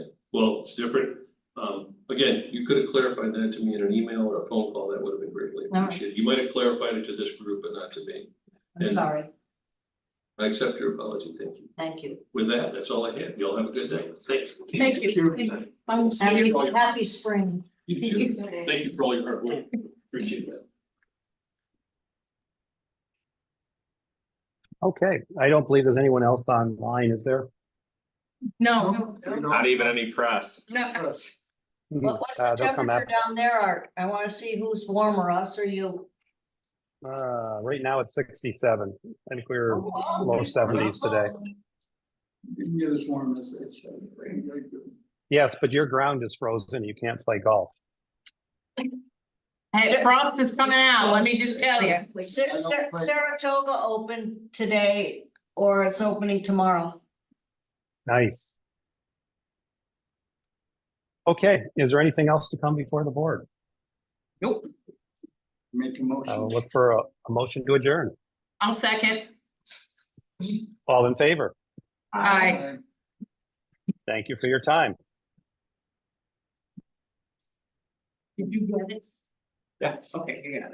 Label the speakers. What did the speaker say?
Speaker 1: Well, it's different. Um, again, you could have clarified that to me in an email or a phone call, that would have been greatly
Speaker 2: right.
Speaker 1: appreciated. You might have clarified it to this group, but not to me.
Speaker 2: I'm
Speaker 1: And-
Speaker 2: sorry,
Speaker 1: I accept your apology, thank you.
Speaker 2: thank you.
Speaker 1: With that, that's all I have. Y'all have a good day. Thanks.
Speaker 3: Thank you, thank you. I will see
Speaker 2: Happy,
Speaker 3: you.
Speaker 2: happy spring.
Speaker 4: Mm-hmm.
Speaker 1: You too. Thank you for all your hard work. Appreciate that.
Speaker 4: Okay, I don't believe there's anyone else online, is there?
Speaker 3: No,
Speaker 5: Not even any press.
Speaker 3: no,
Speaker 2: What was the
Speaker 4: Uh, they'll come
Speaker 2: temperature down there, Art? I wanna see who's warmer, us or you?
Speaker 4: Uh, right now it's sixty-seven. I think we're
Speaker 2: Oh, wow.
Speaker 4: low seventies today.
Speaker 6: Didn't get as warm as it's. uh, very, very good.
Speaker 4: Yes, but your ground is frozen. You can't play golf.
Speaker 3: Hey, frost is coming out, let me just tell you.
Speaker 6: I
Speaker 2: Sa-
Speaker 6: don't
Speaker 2: Sa-
Speaker 6: play-
Speaker 2: Saratoga open today or it's opening tomorrow?
Speaker 4: Nice. Okay, is there anything else to come before the board?
Speaker 6: Make a
Speaker 4: I'll
Speaker 6: motion.
Speaker 4: look for a, a motion to adjourn.
Speaker 3: I'll second.
Speaker 4: All in favor?
Speaker 3: Aye.
Speaker 4: Thank you for your time.
Speaker 3: Did you get it?
Speaker 5: Yeah, okay, yeah.